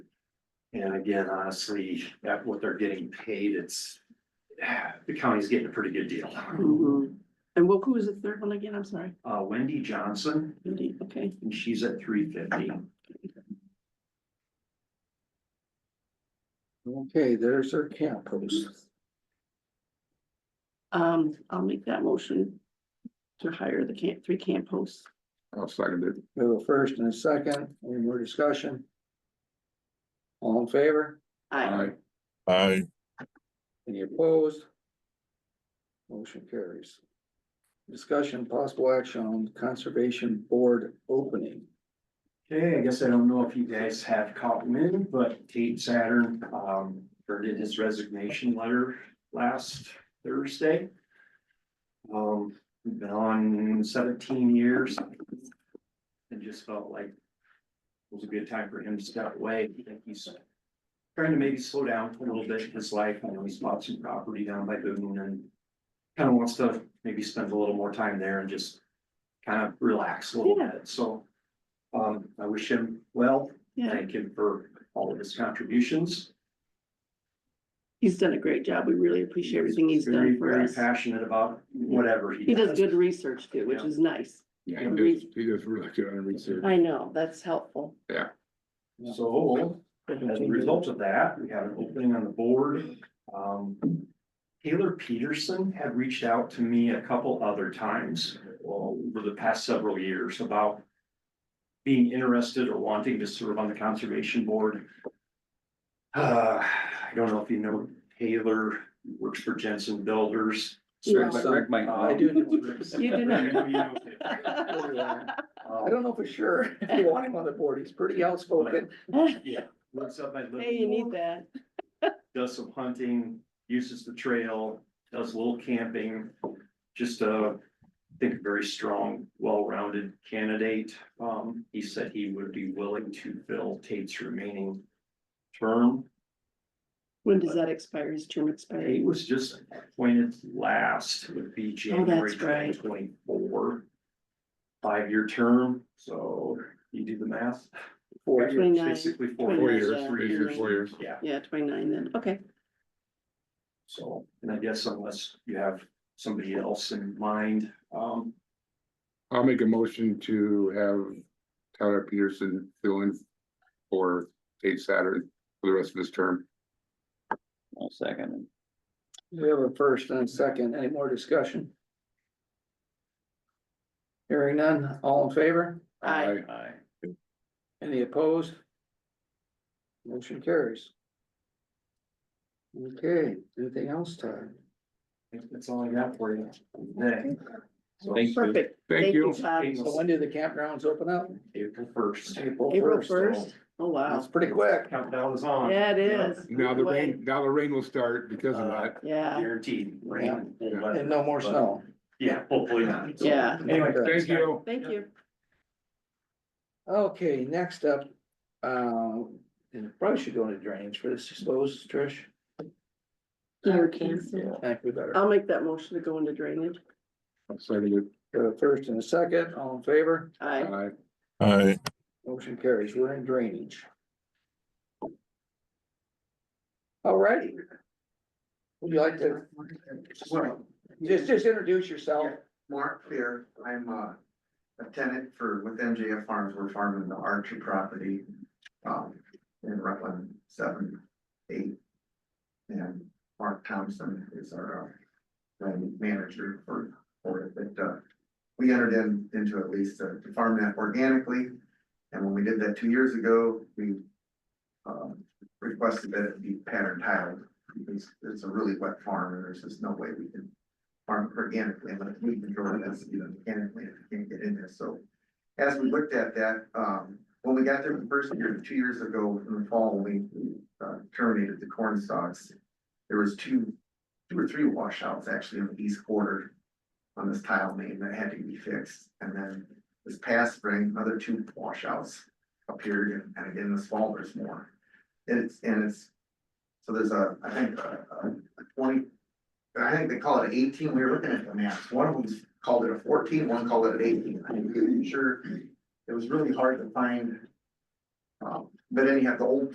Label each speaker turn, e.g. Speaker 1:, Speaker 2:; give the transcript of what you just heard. Speaker 1: And again, honestly, at what they're getting paid, it's, the county's getting a pretty good deal.
Speaker 2: Mhm. And what, who was the third one again? I'm sorry.
Speaker 1: Uh, Wendy Johnson,
Speaker 2: Mindy, Okay,
Speaker 1: and she's at three fifty.
Speaker 3: Okay, there's our camp post.
Speaker 2: um, I'll make that motion to hire the camp, three camp hosts.
Speaker 4: I'll second it.
Speaker 3: We have a first and a second, any more discussion? All in favor?
Speaker 2: I,
Speaker 4: Aye.
Speaker 3: Any opposed? Motion carries. Discussion possible action on conservation board opening.
Speaker 1: Okay, I guess I don't know if you guys have caught wind, but Kate Saturn, um, turned in his resignation letter last Thursday. Um, we've been on seventeen years. And just felt like it was a good time for him to step away. I think he's trying to maybe slow down a little bit in his life. I know he's bought some property down by Boone and kind of wants to maybe spend a little more time there and just kind of relax a little
Speaker 2: Yeah.
Speaker 1: bit. So um, I wish him well,
Speaker 2: yeah,
Speaker 1: thank him for all of his contributions.
Speaker 2: he's done a great job. We really appreciate everything he's
Speaker 1: Very,
Speaker 2: done for
Speaker 1: very
Speaker 2: us.
Speaker 1: Passionate about whatever he
Speaker 2: He does
Speaker 1: does.
Speaker 2: good research too, which
Speaker 1: Yeah.
Speaker 2: is nice.
Speaker 4: Yeah,
Speaker 2: Yeah.
Speaker 4: he does, he does really good on research.
Speaker 2: I know, that's helpful.
Speaker 1: So as a result of that, we have an opening on the board. Um, Taylor Peterson had reached out to me a couple other times well, over the past several years about being interested or wanting to serve on the conservation board. Uh, I don't know if you know Taylor, works for Jensen Builders.
Speaker 2: Yeah.
Speaker 3: I do, know.
Speaker 2: You do
Speaker 1: Rick, you know.
Speaker 3: I don't know for sure, if you want him on the board, he's pretty outspoken.
Speaker 1: Um, Yeah, looks up my.
Speaker 2: Hey, you need that.
Speaker 1: does some hunting, uses the trail, does a little camping. Just a, I think, a very strong, well-rounded candidate. Um, he said he would be willing to fill Tate's remaining term.
Speaker 2: When does that expire? His term expires?
Speaker 1: Tate was just appointed last, would be January twenty
Speaker 2: right.
Speaker 1: twenty-four. Five-year term, so you do the math,
Speaker 3: Four years.
Speaker 2: Twenty-nine.
Speaker 1: basically four
Speaker 4: Four
Speaker 2: Twenty
Speaker 1: years,
Speaker 4: years,
Speaker 1: three
Speaker 4: three years,
Speaker 1: years,
Speaker 4: four years.
Speaker 1: yeah.
Speaker 2: Yeah, twenty-nine then. Okay,
Speaker 1: So, and I guess unless you have somebody else in mind, um,
Speaker 4: I'll make a motion to have Tyler Peterson fill in for Tate Saturn for the rest of his term.
Speaker 5: I'll second
Speaker 3: We have a first and a second, any more discussion? Hearing none, all in favor?
Speaker 2: I,
Speaker 5: it. Aye.
Speaker 3: Any opposed? Motion carries. Okay, anything else, Todd?
Speaker 1: that's all I got for you. today. So,
Speaker 5: Thank you.
Speaker 2: perfect.
Speaker 4: Thank you.
Speaker 2: Todd.
Speaker 3: So when do the campgrounds open up?
Speaker 1: April first.
Speaker 2: April
Speaker 3: so
Speaker 2: first? Oh, wow.
Speaker 3: It's pretty quick.
Speaker 1: Countdown is on.
Speaker 2: Yeah, it is.
Speaker 4: Now the
Speaker 2: Good way.
Speaker 4: rain, now the rain will start because of that.
Speaker 2: Yeah,
Speaker 1: Guaranteed. rain, cold weather.
Speaker 3: And no more snow.
Speaker 1: Yeah, hopefully not. So,
Speaker 2: Yeah.
Speaker 1: Anyway.
Speaker 4: Thank you.
Speaker 2: thank you.
Speaker 3: Okay, next up, uh, and probably should go into drainage for this, suppose, Trish.
Speaker 2: Your cancer.
Speaker 3: I think we better.
Speaker 2: I'll make that motion to go into drainage.
Speaker 4: I'll second
Speaker 3: Got a first and a second, all in favor?
Speaker 4: it.
Speaker 2: I,
Speaker 4: Aye.
Speaker 6: Aye.
Speaker 3: Motion carries, we're in drainage. Alrighty. Would you like to,
Speaker 7: Well,
Speaker 3: just, just introduce yourself?
Speaker 7: Mark here, I'm a, a tenant for, with MJF Farms, we're farming the Archer property. Um, in Rutland seven, eight. And Mark Thompson is our, uh, land manager for, for it, but, uh. We entered in, into at least to to farm that organically, and when we did that two years ago, we. Um, requested that it be pattern tiled, because it's a really wet farm, and there's just no way we can farm organically, unless we control it, that's, you know, mechanically, if you can't get in there, so. As we looked at that, um, when we got there the first year, two years ago in the fall, we uh, terminated the corn stalks. There was two, two or three washouts actually in the east quarter on this tile main that had to be fixed, and then this past spring, another two washouts appeared, and again this fall, there's more. And it's, and it's, so there's a, I think, a a twenty, I think they call it eighteen, we were looking at the maps, one of them's called it a 14, one called it an eighteen, I'm pretty sure. It was really hard to find. Um, but anyhow, the old